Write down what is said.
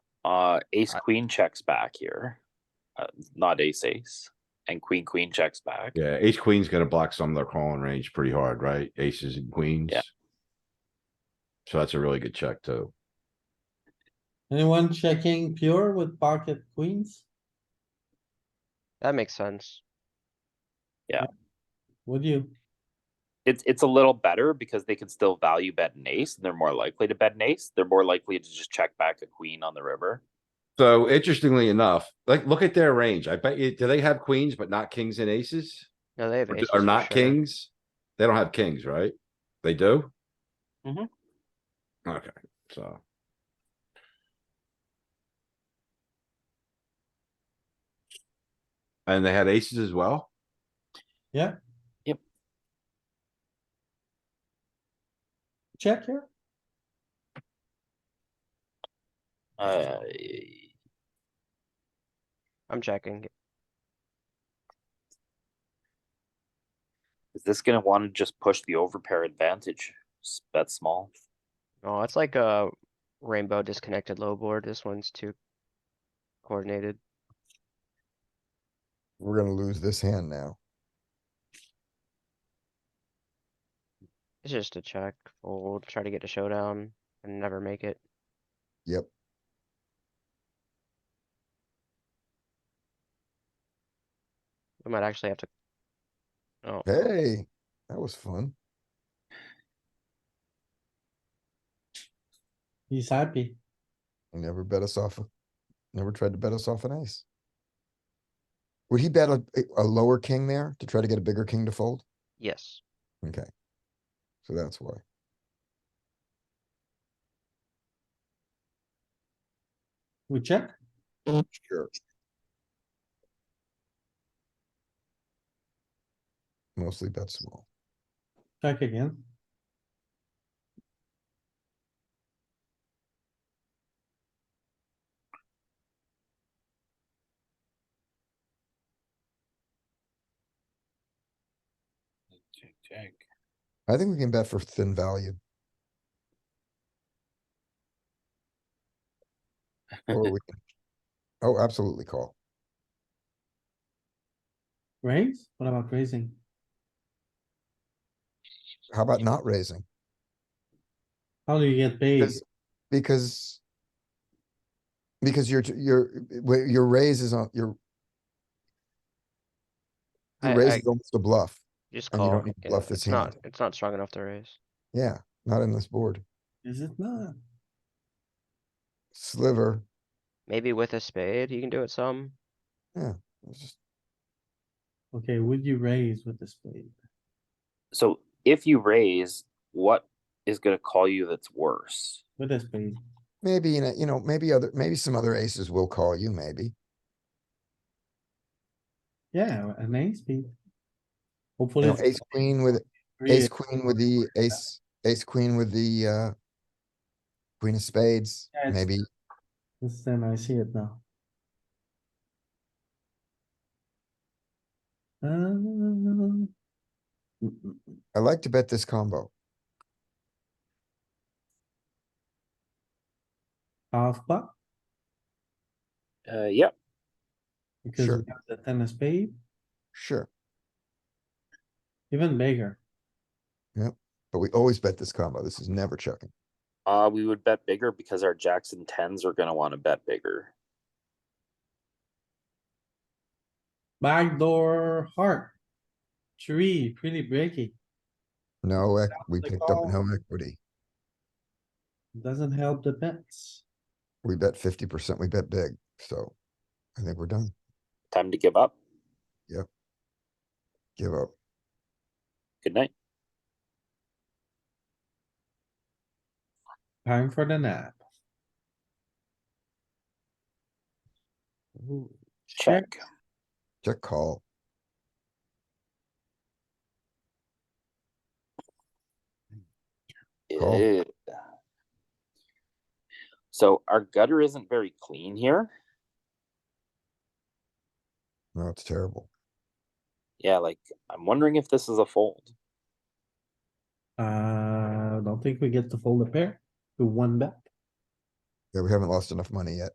Uh, ace I- queen checks back here, uh, not ace ace, and queen queen checks back. Yeah, ace queen's gonna block some of their calling range pretty hard, right? Aces and queens. So that's a really good check too. Anyone checking pure with pocket queens? That makes sense. Would you? It's it's a little better because they can still value bet an ace, and they're more likely to bet an ace. They're more likely to just check back a queen on the river. So interestingly enough, like, look at their range. I bet you, do they have queens but not kings and aces? No, they have Or aces. d- Or for not sure. kings? They don't have kings, right? They do? Mhm. Mm-hmm. Okay, so. And they had aces as well? Check here? Uh, I'm checking. is this gonna want to just push the overpair advantage? S- Bet small. Oh, it's like a rainbow disconnected low board. This one's too coordinated. We're gonna lose this hand now. It's just a check, fold, try to get a showdown and never make it. Yep. We might actually have to. Oh, Hey, that was fun. He's happy. He never bet us off. a- Never tried to bet us off an ace. Would he bet a, a lower king there to try to get a bigger king to fold? yes. Okay. So that's why. We check? Sure. Mostly bet small. Check again. Check check. I think we can bet for thin value. Or we can. Oh, absolutely call. Raise? What about raising? How about not raising? How do you get paid? Because, because. Because your, your, wait, your raise is on, your. I- Your raise I- is almost a bluff. Just And you call. don't need to yeah, bluff this It's not, hand. it's not strong enough to raise. Yeah, not in this board. Is it not? Sliver, Maybe with a spade, you can do it some. it's just- Okay, would you raise with the spade? So if you raise, what is gonna call you that's worse? With a spade? maybe, in a- you know, maybe other, maybe some other aces will call you, maybe. Yeah, an ace speed. You Hopefully. know, it's ace queen with, three, ace queen with the ace, ace queen with the, uh. Queen of spades, Yeah, it's- maybe, This time I see it now. Um, mm, mm, mm. I like to bet this combo. Half pot, Uh, yep. because we Sure. have the ten of spade, Sure, even bigger. but we always bet this combo. This is never checking. Uh, we would bet bigger because our jacks and tens are gonna want to bet bigger. Backdoor heart. Three, pretty breaky. No, ec- we the picked up call. no equity. Doesn't help the bets. We bet fifty percent, we bet big, so I think we're done. Time to give up. Give up. Good night. Time for the nap. Ooh, Check. Check call. Cool. Yeah. So our gutter isn't very clean here. No, it's terrible. Yeah, like I'm wondering if this is a fold. Uh, don't think we get to fold a pair to one bet. Yeah, we haven't lost enough money yet.